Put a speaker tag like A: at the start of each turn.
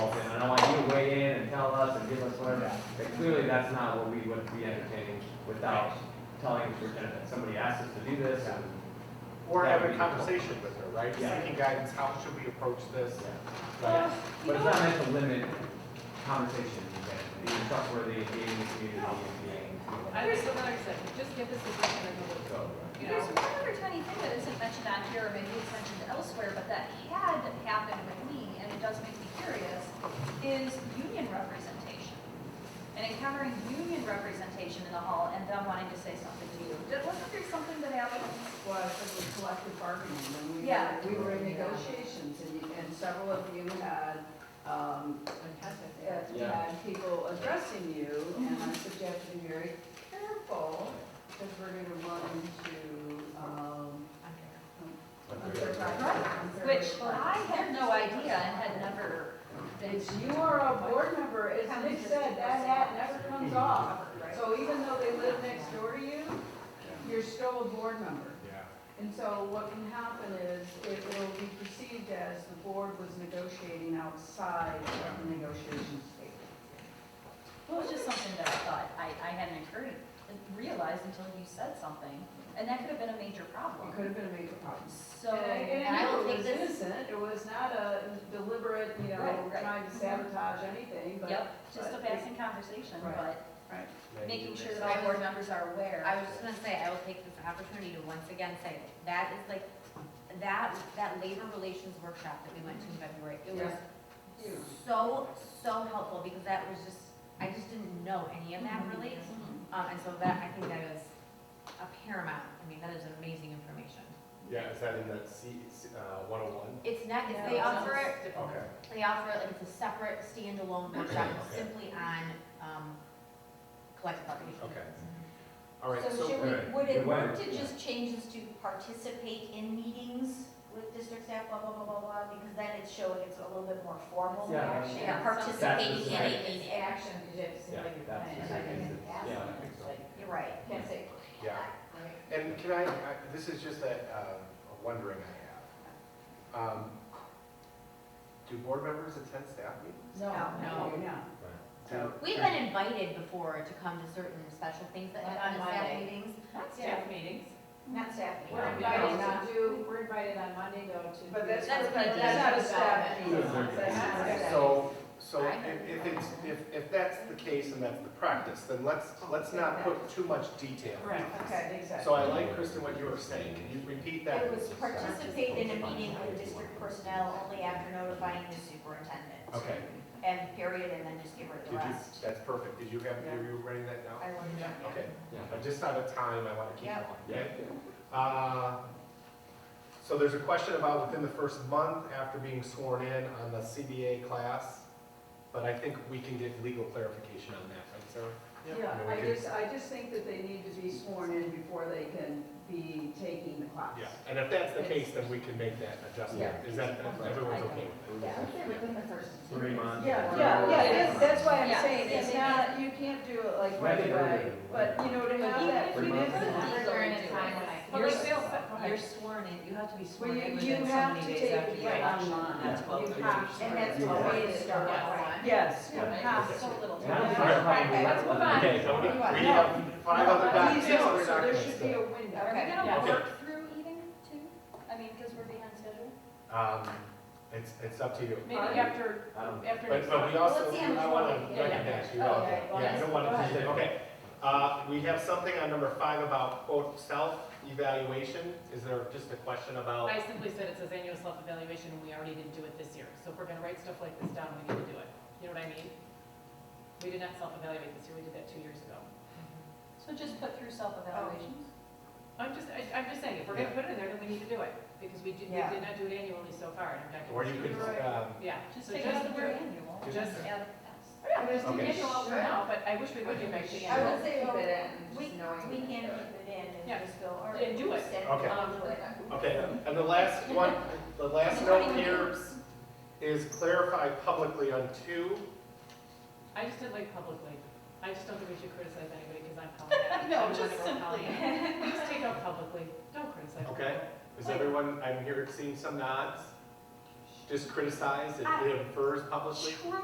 A: us or give us whatever. But clearly, that's not what we would be entertaining without telling the superintendent, somebody asked us to do this, and,
B: Or have a conversation with her, right?
A: Yeah.
B: Seeking guidance, how should we approach this?
A: yeah.
C: Well,
A: But-
C: you
A: But it's
C: know,
A: not meant to limit conversation, being trustworthy, being in the community, and being.
C: I was the one who said, just give this a second and we'll go. You know,
D: There's one other tiny thing that isn't mentioned on here, or maybe it's mentioned elsewhere, but that had happened with me, and it does make me curious, is union representation. And encountering union representation in the hall and them wanting to say something to you. Did- Wasn't there something that happened?
E: was, it was collective bargaining, and we
D: Yeah.
E: were, we were in negotiations, and, and several of you had, um, had-
A: Yeah.
E: had people addressing you, and I suggest be very careful, because we're gonna run into, um, unfair practice. unfair
D: Which
E: practice.
D: I had no idea and had never been.
E: It's, you are a board member, as Nick said, that hat never comes off,
D: Right.
E: so even though they live next door to you, you're still a board member.
B: Yeah.
E: And so what can happen is it will be perceived as the board was negotiating outside of the negotiations table.
D: Well, it was just something that I thought, I, I hadn't occurred, realized until you said something, and that could have been a major
E: It
D: problem.
E: could have been a major problem.
D: So, and I will take
E: It was
D: this,
E: innocent, it was not a deliberate, you know,
D: Right, right.
E: trying to sabotage anything, but,
D: yep, just a
E: but-
D: passing conversation,
E: Right.
D: but
E: right.
D: making sure that all board members are aware.
F: I was just gonna say, I will take this opportunity to once again say, that is like, that, that labor relations workshop that we went to in February, it was
E: Huge.
F: so, so helpful, because that was just, I just didn't know any of that really.
D: Mhm.
F: Um, and so that, I think that is a paramount, I mean, that is amazing information.
B: Yeah, is that in that C, uh, one oh one?
F: It's not, it's, they
C: Yeah.
F: offer it,
B: Okay.
F: they offer it, like, it's a separate standalone workshop, it's simply on, um, collective bargaining.
B: Okay. All right,
G: So
B: so,
G: should we,
A: right.
G: would it
A: Good
G: work
A: way,
G: to
A: yeah.
G: just change this to participate in meetings with district staff, blah, blah, blah, blah, blah? Because then it's showing it's a little bit more formal
A: Yeah.
G: action.
A: Yeah.
G: Participating
A: That's the
G: in
A: same.
G: it is action.
A: Yeah, that's the second instance. Yeah, I think so.
G: You're right.
A: Can't
G: say.
B: yeah. And can I, I- this is just a, um, a wondering I have. Um, Do board members attend staff meetings?
E: No,
F: No.
E: no, no.
B: Do-
F: We've been invited before to come to certain special things that
G: Like
F: happen
G: on
F: at staff
G: Monday.
F: meetings.
C: not
G: staff
C: meetings.
G: Not staff.
E: We're
A: Yeah.
E: invited
A: Yeah.
E: to do,
C: We're invited on Monday though to.
E: but that's,
F: That's
E: that's
F: PTA.
E: not a staff meeting.
A: That's their-
E: That's not a staff
B: So, so
F: I-
B: if if it's, if, if that's the case and that's the practice, then let's, let's not put too much detail.
E: Right, okay, exactly.
B: So I like, Kristen, what you were saying. Can you repeat that? uh,
G: It was participate in a meeting with district personnel only after notifying the superintendent.
B: Okay.
G: And period, and then just give her
B: Did
G: the
B: you,
G: rest.
B: that's perfect. Did you have, are you writing that down?
G: I will do that, yeah.
B: Okay,
A: Yeah.
B: I'm just out of time, I want to keep
G: Yeah.
B: going,
A: Yeah.
B: okay? Uh, So there's a question about within the first month after being sworn in on the CBA class, but I think we can get legal clarification on that, right, Sarah?
E: Yeah,
B: And we
E: I
B: can-
E: just, I just think that they need to be sworn in before they can be taking the class.
B: Yeah, and if that's the case, then we can make that adjustment. Is that, everyone's okay with
A: Yeah. Three months.
E: Yeah, yeah, yeah, that's, that's why I'm
G: Yeah,
E: saying,
G: yeah,
E: it's
G: maybe.
E: not, you can't do it like
A: Right,
E: right
A: right,
E: away,
A: right.
E: but you know, to have that.
A: Three months.
E: commitment-
C: During a time when I.
E: You're-
C: You're sworn in, you have to be
E: Well,
C: sworn
E: you,
C: in
E: you
C: within so
E: have to
C: many
E: take
C: days after
E: it
C: the
E: right
C: election.
E: online.
C: and
E: You
C: that's twelve thirty.
E: have to.
G: And that's
A: Yeah.
G: the way to start, right?
E: Yes, you
A: Yeah.
E: have
D: So
E: to.
D: little.
A: And I don't think our problem is-
C: Let's move on.
A: Okay, so
B: it.
A: we-
B: We have five other
E: No,
B: documents.
E: please don't.
B: other
E: So there
B: documents
E: should be a
B: that-
E: window.
G: Okay.
D: Are we gonna
B: Okay.
D: work through eating too? I mean, because we're behind schedule?
B: Um, It's, it's up to you.
C: Maybe after,
A: I don't-
C: after
B: But,
C: next
B: but
C: month.
B: we also,
G: Let's see how much
B: I want
G: more we
B: to
G: can get.
B: recognize you
G: Oh,
B: all.
G: okay. Well,
B: Yeah, I don't want
A: go
B: to just
A: ahead.
B: say, okay. Uh, we have something on number five about quote self-evaluation. Is there just a question about?
C: I simply said it says annual self-evaluation, and we already didn't do it this year. So if we're gonna write stuff like this down, we need to do it. You know what I mean? We did not self-evaluate this year, we did that two years ago.
D: So just put through self-evaluations?
C: Oh. I'm just, I, I'm just saying, if we're gonna put it in there, then we need to do it, because we did, we
E: Yeah.
C: did not do it annually so far, and I'm not.
B: Or you
C: gonna-
B: could, um,
C: Yeah,
D: Just
C: so
D: take out
C: just
D: the
C: the
D: word
C: word,
D: annual.
B: just-
D: add
C: yeah, just
B: Okay.
C: take it out for now, but I wish we would get back to the
G: I
C: annual.
G: would say, well, we,
E: we-
G: we can keep it in
C: Yeah.
G: and just go, all right.
C: And do it.
G: send
B: Okay.
G: on to it.
B: okay. And the last one, the last note here is clarify publicly on two.
C: I just didn't like publicly. I just don't think we should criticize anybody because I'm calling it.
D: No,
C: I'm the one
D: just
C: that wrote calling
D: simply.
C: it. Just take out publicly. Don't criticize.
B: Okay. Is everyone, I'm here seeing some nods. Just criticize, it it infers publicly.